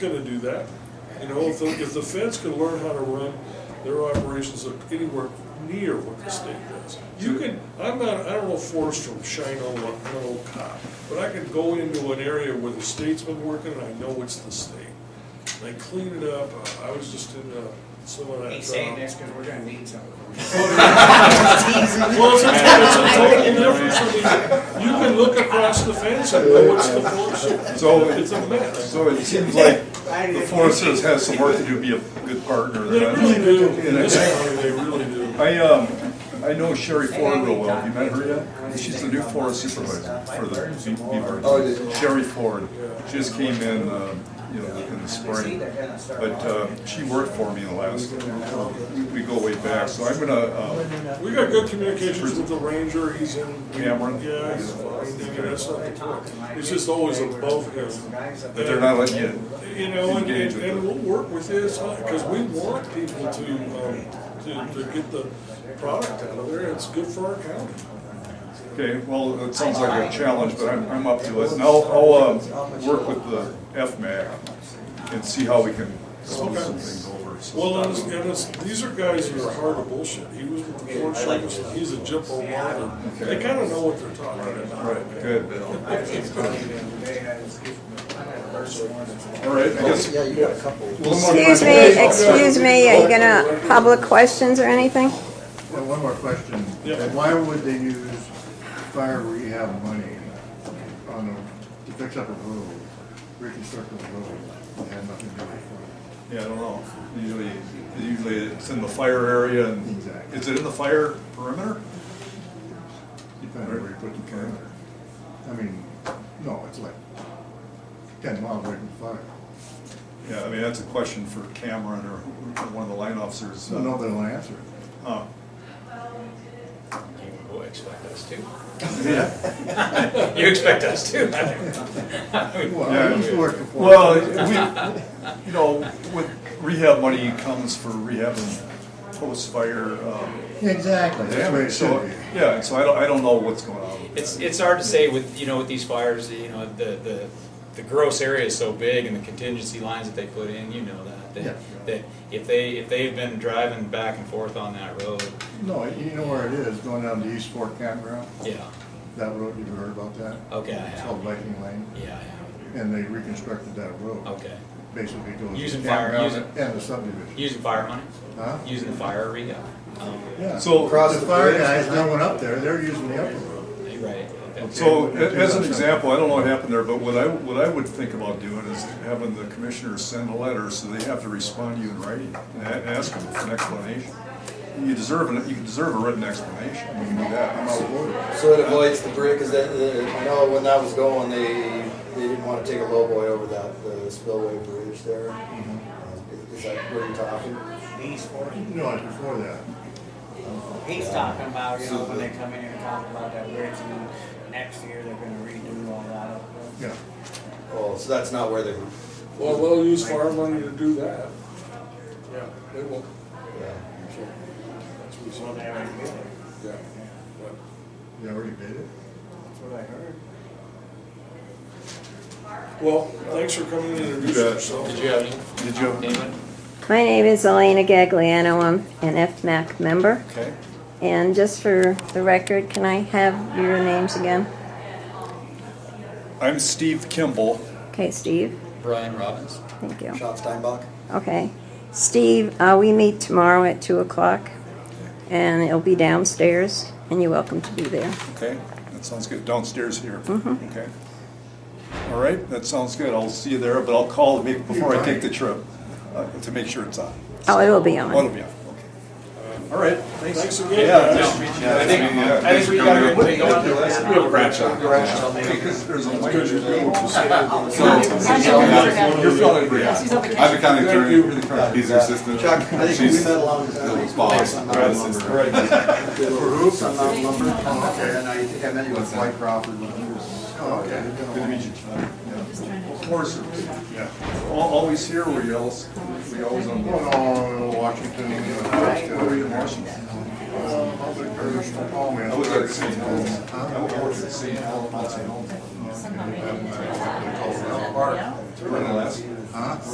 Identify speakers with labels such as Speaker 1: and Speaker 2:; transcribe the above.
Speaker 1: gonna do that. You know, if the, if the feds could learn how to run their operations anywhere near what the state does. You can, I'm not, I don't know force from shine on a, on a cop, but I could go into an area where the state's been working and I know it's the state. They clean it up, I I was just in, uh, some of that.
Speaker 2: He's saying
Speaker 1: uh,
Speaker 2: this because we're gonna need some.
Speaker 1: Well, it's, it's a total difference, I mean, you can look across the fence and know it's the force,
Speaker 3: So-
Speaker 1: it's a mess.
Speaker 3: So it seems like the Forest Service has some work to do to be a good partner.
Speaker 1: They really do, in this county, they really do.
Speaker 3: I, um, I know Sherry Ford real well, have you met her yet? She's the new forest supervisor for the Bee- Beaver.
Speaker 4: Oh, yeah.
Speaker 3: Sherry Ford, she just came in, um, you know, in the spring. But, uh, she worked for me in the last, we- we go way back, so I'm gonna, uh,
Speaker 1: We got good communications with the ranger, he's in.
Speaker 3: Cameron?
Speaker 1: Yeah, he's fine, I mean, that's not the point, it's just always above him.
Speaker 3: but they're not letting you,
Speaker 1: You know, and,
Speaker 3: Engage
Speaker 1: and
Speaker 3: with
Speaker 1: and
Speaker 3: them.
Speaker 1: we'll work with his, because we want people to, um, to, to get the product out of there, it's good for our county.
Speaker 3: okay, well, it sounds like a challenge, but I'm, I'm up to it. And I'll, I'll, um, work with the FMAC and see how we can smooth some things over. so.
Speaker 1: Well, and it's, and it's, these are guys who are hard to bullshit. He was with the Forest Service, and he's a jippo monitor. They kinda know what they're talking about.
Speaker 3: Right, good. All
Speaker 2: All
Speaker 3: right, I guess.
Speaker 4: Yeah, you got a couple.
Speaker 3: One more
Speaker 5: Excuse
Speaker 3: question.
Speaker 5: me, excuse me, are you gonna, public questions or anything?
Speaker 6: Well, one more question.
Speaker 1: Yeah.
Speaker 6: Why would they use fire rehab money on a, to fix up a road, reconstruct a road, that had nothing to do with
Speaker 3: Yeah, I don't know. Usually, usually it's in the fire area and,
Speaker 6: Exactly.
Speaker 3: is it in the fire perimeter?
Speaker 6: it? Depending on where you put the camera. I mean, no, it's like ten miles away from fire.
Speaker 3: Yeah, I mean, that's a question for Cameron or who- one of the line officers.
Speaker 6: So nobody will answer it.
Speaker 3: Uh,
Speaker 2: You expect us to.
Speaker 3: Yeah,
Speaker 2: You expect us to.
Speaker 6: Well,
Speaker 3: Yeah.
Speaker 6: I used to work for. Forest
Speaker 3: well,
Speaker 6: Service.
Speaker 3: we, you know, with rehab money comes for rehab and post-fire, um,
Speaker 6: Exactly, that's the way it
Speaker 3: damage,
Speaker 6: should
Speaker 3: so,
Speaker 6: be.
Speaker 3: yeah, so I don't, I don't know what's going on. with
Speaker 7: It's,
Speaker 3: that.
Speaker 7: it's hard to say with, you know, with these fires, you know, the, the, the gross area is so big and the contingency lines that they put in, you know that.
Speaker 6: Yeah.
Speaker 7: That, that if they, if they've been driving back and forth on that road,
Speaker 6: No, you know where it is, going down to East Fork Campground,
Speaker 7: yeah,
Speaker 6: that road, you heard about that?
Speaker 7: okay, I
Speaker 6: It's called
Speaker 7: have,
Speaker 6: Viking Lane,
Speaker 7: yeah, I
Speaker 6: and they reconstructed that road.
Speaker 7: have, okay.
Speaker 6: Basically goes.
Speaker 7: Using fire-
Speaker 6: campground
Speaker 7: using-
Speaker 6: And the subdivision.
Speaker 7: Using fire money,
Speaker 6: Huh?
Speaker 7: using the fire rehab, um,
Speaker 6: Yeah.
Speaker 3: So-
Speaker 6: Across the fire guys, no one up there, they're using the upper road.
Speaker 7: right, okay.
Speaker 3: So, a- as an example, I don't know what happened there, but what I, what I would think about doing is having the commissioners send a letter, so they have to respond to you in writing, and a- ask them for an explanation. You deserve, an you deserve a written explanation, you can do
Speaker 6: I'm out
Speaker 3: that.
Speaker 6: of order.
Speaker 4: So it avoids the brick, cause that, the- I know when that was going, they, they didn't wanna take a lowboy over that, the spillway bridge there. Uh, Is- Is that where you're talking?
Speaker 2: He's,
Speaker 6: No, it's before that.
Speaker 2: he's talking about, you know, when they come in here and talk about that bridge and then next year they're gonna redo all that. up.
Speaker 6: Yeah.
Speaker 4: Oh, so that's not where they, were-
Speaker 1: Well, they'll use farm money to do that. Yeah, they will.
Speaker 4: yeah.
Speaker 1: That's what we
Speaker 2: Well,
Speaker 1: saw.
Speaker 2: they already did it.
Speaker 1: Yeah.
Speaker 2: Yeah,
Speaker 1: But
Speaker 6: You already did it?
Speaker 2: That's what I heard.
Speaker 1: Well, thanks for coming in and introducing
Speaker 3: You bet.
Speaker 1: yourself.
Speaker 7: Did you have any?
Speaker 3: Did you?
Speaker 7: Damon?
Speaker 5: My name is Elena Gagliano, I'm an FMAC member.
Speaker 3: Okay,
Speaker 5: And just for the record, can I have your names again?
Speaker 3: I'm Steve Kimball,
Speaker 5: Okay, Steve,
Speaker 7: Brian Robbins.
Speaker 5: thank you.
Speaker 4: Sean Steinbach?
Speaker 5: Okay. Steve, uh, we meet tomorrow at two o'clock and it'll be downstairs and you're welcome to be there.
Speaker 3: okay, that sounds good, downstairs here,
Speaker 6: Mm-hmm.
Speaker 3: okay? All right, that sounds good, I'll see you there, but I'll call maybe before I take the trip, uh, to make sure it's on.
Speaker 5: Oh, it'll be on.
Speaker 3: Oh, it'll be on, okay. All right, thanks.
Speaker 1: Thanks again.
Speaker 3: Yeah,
Speaker 1: guys.
Speaker 3: that's-
Speaker 7: I think,
Speaker 3: yeah,
Speaker 7: I think we gotta go take on to that.
Speaker 3: We have a Bradshaw. Because there's a You're feeling great.
Speaker 8: I've been kind of attorney, he's your assistant.
Speaker 4: Chuck, I think we
Speaker 8: She's
Speaker 4: met a long
Speaker 8: the
Speaker 4: time.
Speaker 8: boss.
Speaker 4: For who? Sunmount Lumber, and I think I met you with Mike Crawford when he was.
Speaker 6: Oh, okay.
Speaker 3: Good to meet you, Todd. Yeah. Of course, yeah. Al- Always here, we always, we always on.
Speaker 6: Going on Washington, you know,
Speaker 3: Where were you in
Speaker 6: Washington.
Speaker 3: Washington?
Speaker 6: Uh, public service, oh, man.
Speaker 3: I was at St. Helens. I was at St. Helens, Mount St. Helens.
Speaker 6: Huh?
Speaker 3: We're in Alaska.
Speaker 6: Huh?